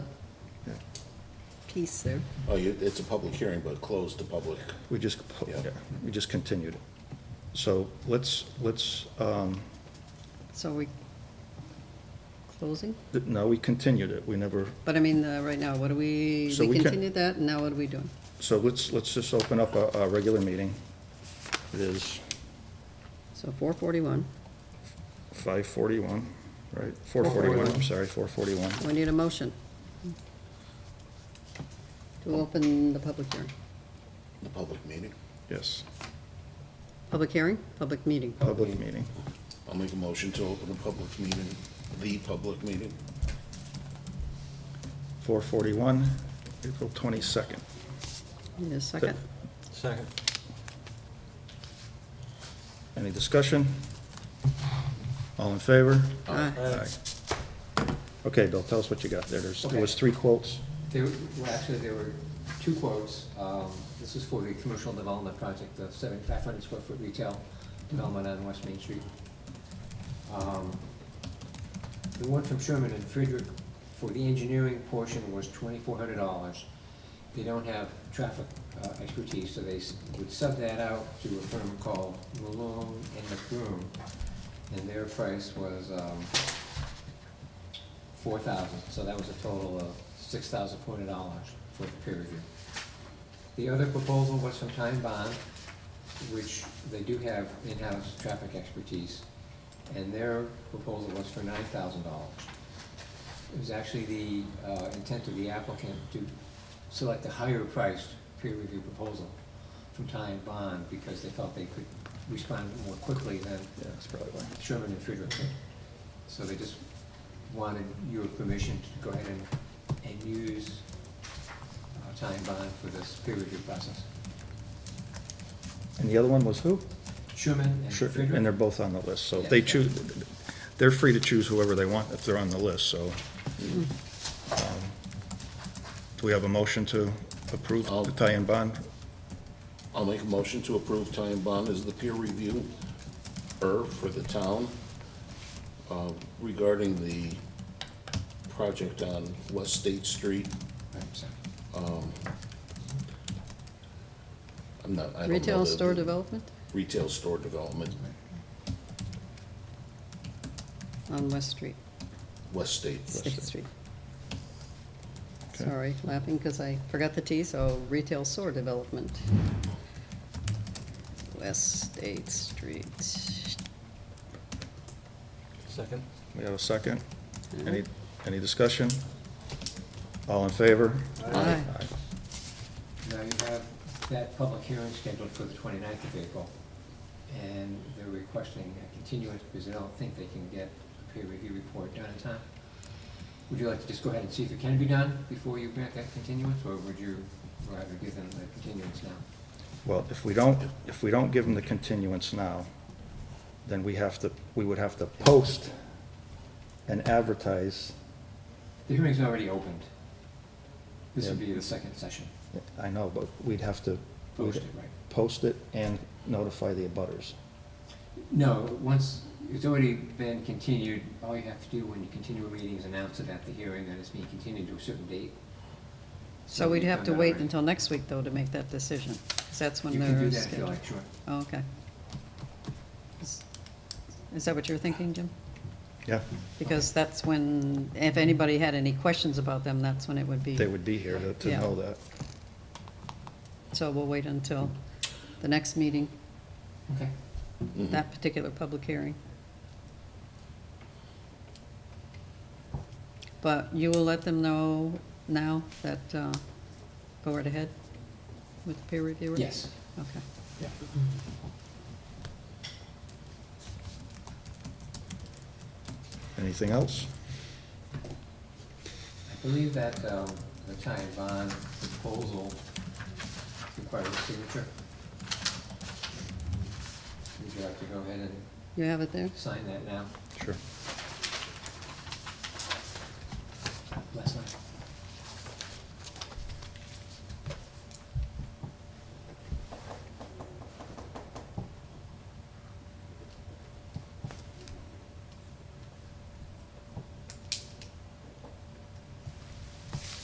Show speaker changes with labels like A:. A: piece there.
B: Oh, you, it's a public hearing, but closed to public.
C: We just,
B: Yeah.
C: we just continued it. So let's, let's, um,
A: So we closing?
C: th- no, we continued it. We never,
A: But I mean, uh, right now, what do we,
C: So
A: we
C: we can-
A: continued that, and now what are we doing?
C: so let's, let's just open up our, our regular meeting. It is
A: So four forty-one.
C: 5:41, right? 4:41, I'm sorry, 4:41.
A: We need a motion to open the public hearing.
B: The public meeting.
C: Yes,
A: Public hearing, public meeting.
C: public meeting.
B: I'll make a motion to open a public meeting, the public meeting.
C: 4:41, April 22nd.
A: Need a second?
D: Second.
C: Any discussion? All in favor?
A: Aye.
D: Uh,
C: Okay, Bill, tell us what you got there. There's, there
E: Okay.
C: was three quotes.
E: There, well, actually, there were two quotes. Um, This is for the commercial development project, the seven, five hundred square foot retail development on West Main Street. Um, The one from Sherman and Friedrich for the engineering portion was twenty-four hundred dollars. They don't have traffic uh, expertise, so they s- would sub that out to a firm called Malone and McBroom. And their price was, um, four thousand, so that was a total of six thousand four hundred dollars for the peer review. The other proposal was from Time Bond, which they do have in-house traffic expertise, and their proposal was for nine thousand dollars. It was actually the uh, intent of the applicant to select a higher priced peer review proposal from Time Bond because they felt they could respond more quickly than
C: Yeah, that's probably why.
E: Sherman and Friedrich. So they just wanted your permission to go ahead and, and use uh, time bond for this peer review process.
C: And the other one was who?
E: Sherman and
C: Sure, and they're
E: Friedrich?
C: both on the list, so if they
E: Yeah.
C: choose, they're free to choose whoever they want if they're on the list, so.
E: Mm-hmm.
C: um, Do we have a motion to approve
B: I'll-
C: the tie-in bond?
B: I'll make a motion to approve Ty and Bond as the peer review er for the town uh, regarding the project on West State Street.
E: Right, so,
B: I'm not, I don't know.
A: Retail
B: the-
A: store development
B: Retail store development,
A: on West Street,
B: West State.
A: State Street.
C: Okay.
A: Sorry, laughing because I forgot the T, so retail store development. West State Street.
D: Second.
C: We have a second? Any, any discussion? All in favor?
A: Aye.
E: Now you have that public hearing scheduled for the 29th of April, and they're requesting a continuance because they don't think they can get a peer review report done in time. Would you like to just go ahead and see if it can be done before you grant that continuance, or would you rather give them the continuance now?
C: Well, if we don't, if we don't give them the continuance now, then we have to, we would have to post and advertise.
E: The hearing's already opened. This would
C: Yeah.
E: be the second session.
C: I know, but we'd have to.
E: Post it, right?
C: Post it and notify the abutters.
E: No, once, it's already been continued, all you have to do when you continue a meeting is announce it at the hearing that it's being continued to a certain date.
A: So we'd
E: you've
A: have
E: done
A: to
E: that
A: wait
E: already.
A: until next week, though, to make that decision, because that's when
E: You
A: they're
E: can do
A: scheduled.
E: that if you like, sure.
A: Oh, okay. Is is that what you're thinking, Jim?
C: Yeah,
A: Because that's when, if anybody had any questions about them, that's when it would be.
C: they would be here to- to
A: Yeah.
C: know that.
A: So we'll wait until the next meeting,
E: Okay.
B: Mhm.
A: that particular public hearing. But you will let them know now that, uh, go right ahead with the peer reviewer?
E: Yes.
A: Okay.
E: Yeah.
C: Anything else?
E: I believe that um, the Ty and Bond proposal requires a signature. Would you like to go ahead and
A: You have it there?
E: sign that now?
C: Sure.